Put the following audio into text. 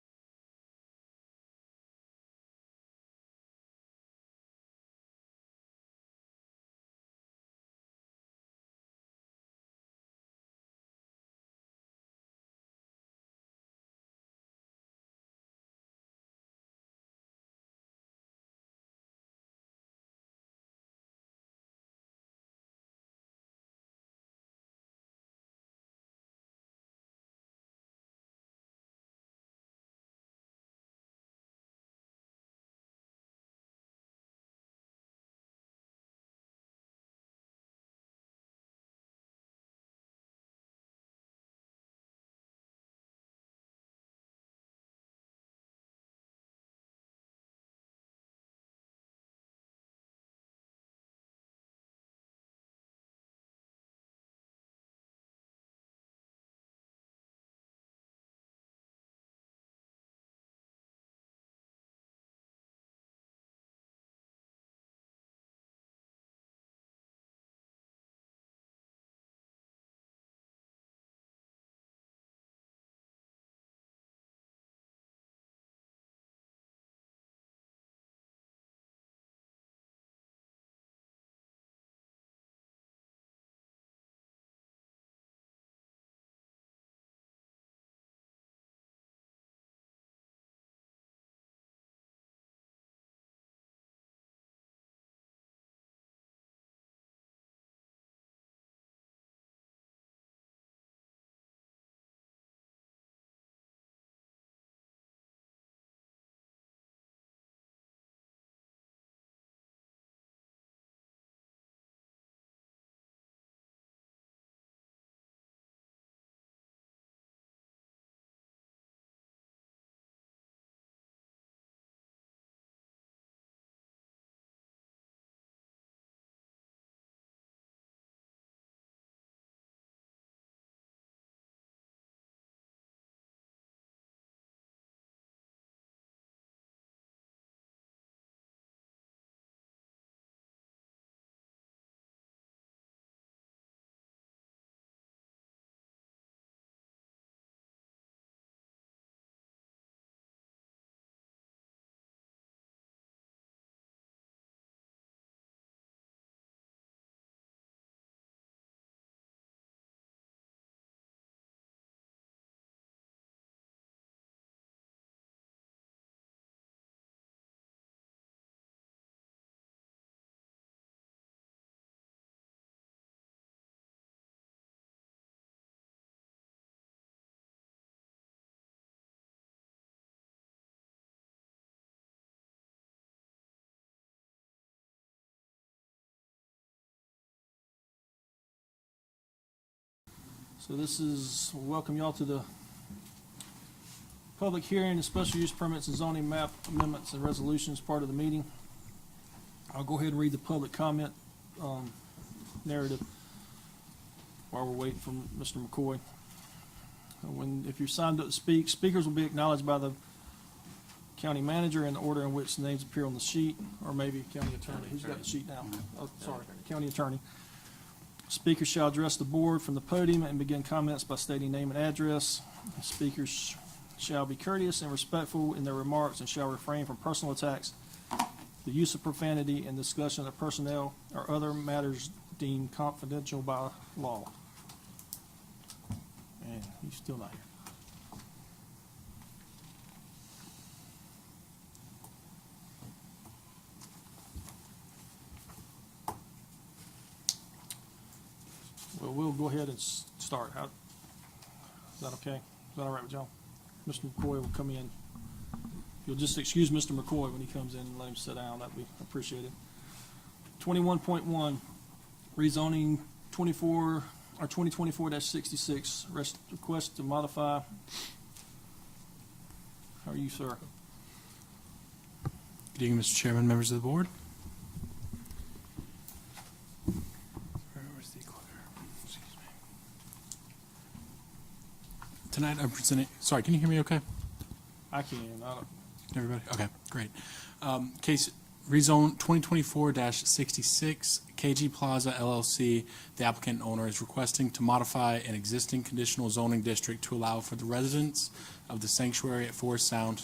So this is, welcome y'all to the public hearing, of special use permits and zoning map amendments and resolutions part of the meeting. I'll go ahead and read the public comment um, narrative while we're waiting for Mr. McCoy. Uh, When, if you're signed up to speak, speakers will be acknowledged by the county manager in the order in which names appear on the sheet, or maybe county attorney, who's got the sheet now? Oh, sorry, county attorney. Speakers shall address the board from the podium and begin comments by stating name and address. Speakers shall be courteous and respectful in their remarks and shall refrain from personal attacks, the use of profanity, and discussion of personnel or other matters deemed confidential by law. And he's still not here. Well, we'll go ahead and s- start. How- Is that okay? Is that all right with y'all? Mr. McCoy will come in. If You'll just excuse Mr. McCoy when he comes in and let him sit down. That'd be appreciated. Twenty-one point one, rezoning twenty-four, or twenty twenty-four sixty-six, request to modify. How are you, sir? Good evening, Mr. Chairman, members of the board. Where was the clicker? Excuse me. Tonight, I'm presenting, sorry, can you hear me okay? I can, I don't, Everybody? Okay, great. Um, Case rezone 2024-66, KG Plaza LLC. The applicant and owner is requesting to modify an existing conditional zoning district to allow for the residents of the sanctuary at Forest Sound